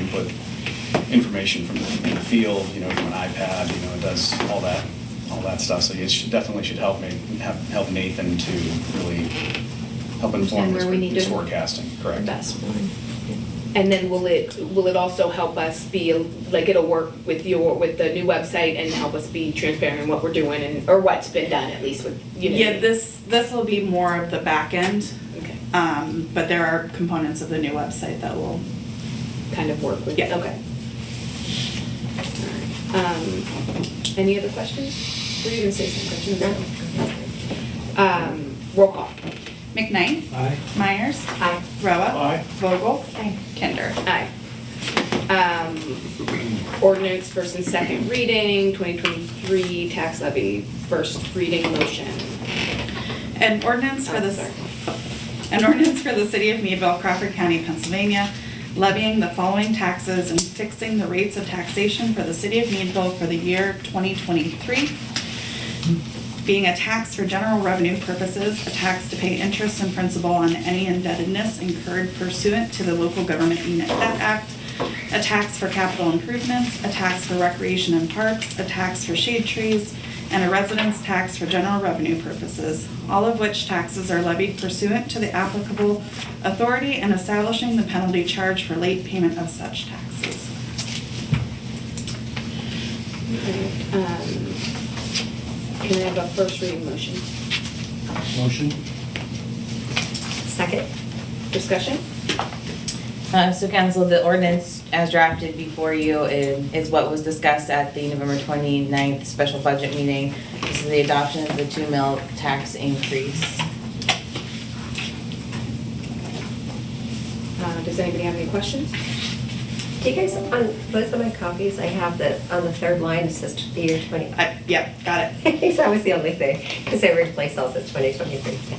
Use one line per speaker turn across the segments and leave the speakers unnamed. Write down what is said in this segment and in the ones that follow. input information from the from the field, you know, from an iPad, you know, it does all that, all that stuff. So it should, definitely should help me, have- help Nathan to really help inform
And
his
where we need
his
to
forecasting, correct?
Best one.
And then will it, will it also help us be, like, it'll work with your, with the new website and help us be transparent in what we're doing and, or what's been done at least with, you know?
Yeah, this, this will be more of the back end,
Okay,
um, but there are components of the new website that will,
kind of work with,
Yeah.
okay. Um, any other questions? Were you gonna say some questions? No. Um, roll call.
McKnight,
Aye.
Myers,
Aye.
Roa,
Aye.
Vogel, Kinder.
Aye. Um, ordinance first and second reading, twenty twenty-three tax levy, first reading motion. Oh,
An ordinance for the,
Sorry.
an ordinance for the city of Meadville, Crawford County, Pennsylvania, levying the following taxes and fixing the rates of taxation for the city of Meadville for the year 2023, being a tax for general revenue purposes, a tax to pay interest and principal on any indebtedness incurred pursuant to the Local Government Unit Debt Act, a tax for capital improvements, a tax for recreation and parks, a tax for shade trees, and a residence tax for general revenue purposes, all of which taxes are levied pursuant to the applicable authority and establishing the penalty charge for late payment of such taxes.
Um, Can I have a first reading motion?
Motion?
Second. Discussion?
Uh, So council, the ordinance as drafted before you is is what was discussed at the November 29th special budget meeting. This is the adoption of the two mil tax increase.
Uh, does anybody have any questions?
Do you guys, on both of my copies, I have that on the third line, it says the year 20. I
I, yep, got it.
think that was the only thing, because they replaced all this 2023.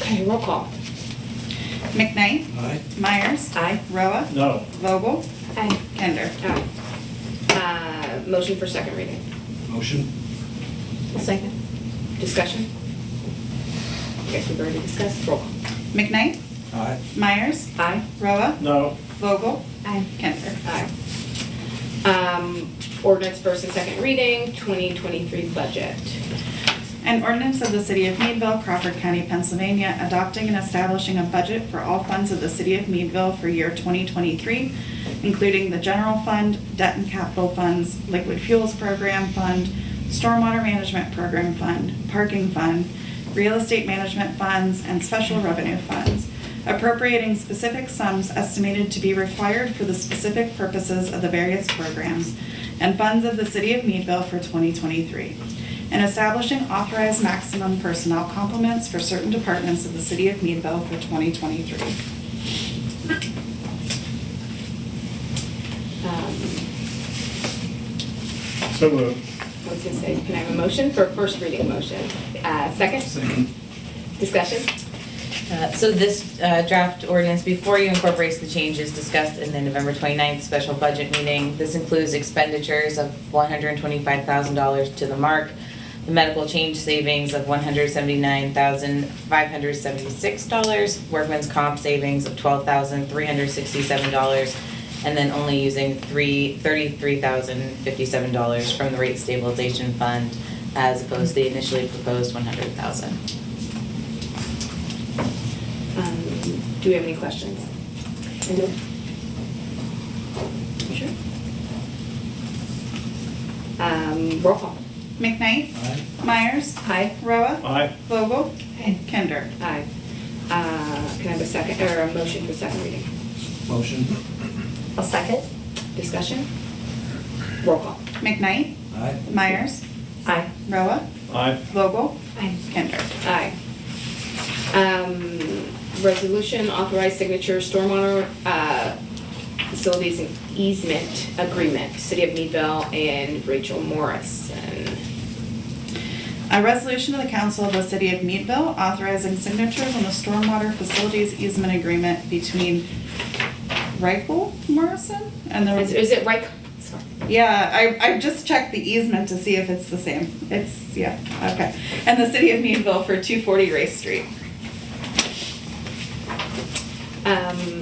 Okay, roll call.
McKnight,
Aye.
Myers,
Aye.
Roa,
No.
Vogel,
Aye.
Kinder.
Aye. Uh, motion for second reading.
Motion?
Second. Discussion? I guess we've already discussed. Roll call.
McKnight,
Aye.
Myers,
Aye.
Roa,
No.
Vogel,
Aye.
Kinder.
Aye. Um, ordinance first and second reading, twenty twenty-three budget.
An ordinance of the City of Meadville, Crawford County, Pennsylvania, adopting and establishing a budget for all funds of the City of Meadville for year 2023, including the general fund, debt and capital funds, liquid fuels program fund, stormwater management program fund, parking fund, real estate management funds, and special revenue funds, appropriating specific sums estimated to be required for the specific purposes of the various programs, and funds of the City of Meadville for 2023 and establishing authorized maximum personnel complements for certain departments of the City of Meadville for 2023.
Um,
So moved.
I was gonna say, can I have a motion for a first reading motion? Uh, second,
Second.
discussion?
Uh, So this uh, draft ordinance before you incorporates the changes discussed in the November 29th special budget meeting. This includes expenditures of $125,000 to the mark, the medical change savings of $179,576, workman's comp savings of $12,367, and then only using three- $33,057 from the rate stabilization fund as opposed to the initially proposed $100,000.
Um, do we have any questions? Sure. Um, roll call.
McKnight,
Aye.
Myers,
Aye.
Roa,
Aye.
Vogel, Kinder.
Aye. Uh, can I have a second, or a motion for second reading?
Motion?
I'll second.
Discussion? Roll call.
McKnight,
Aye.
Myers,
Aye.
Roa,
Aye.
Vogel,
Aye.
Kinder.
Aye. Um, resolution authorized signature stormwater, uh, facilities and easement agreement, City of Meadville and Rachel Morrison.
A resolution of the council of the city of Meadville authorizing signatures on the stormwater facilities easement agreement between Reichel Morrison and
Is,
the,
is it right? Sorry.
yeah, I, I just checked the easement to see if it's the same. It's, yeah, okay. And the city of Meadville for two forty Race Street.
Um,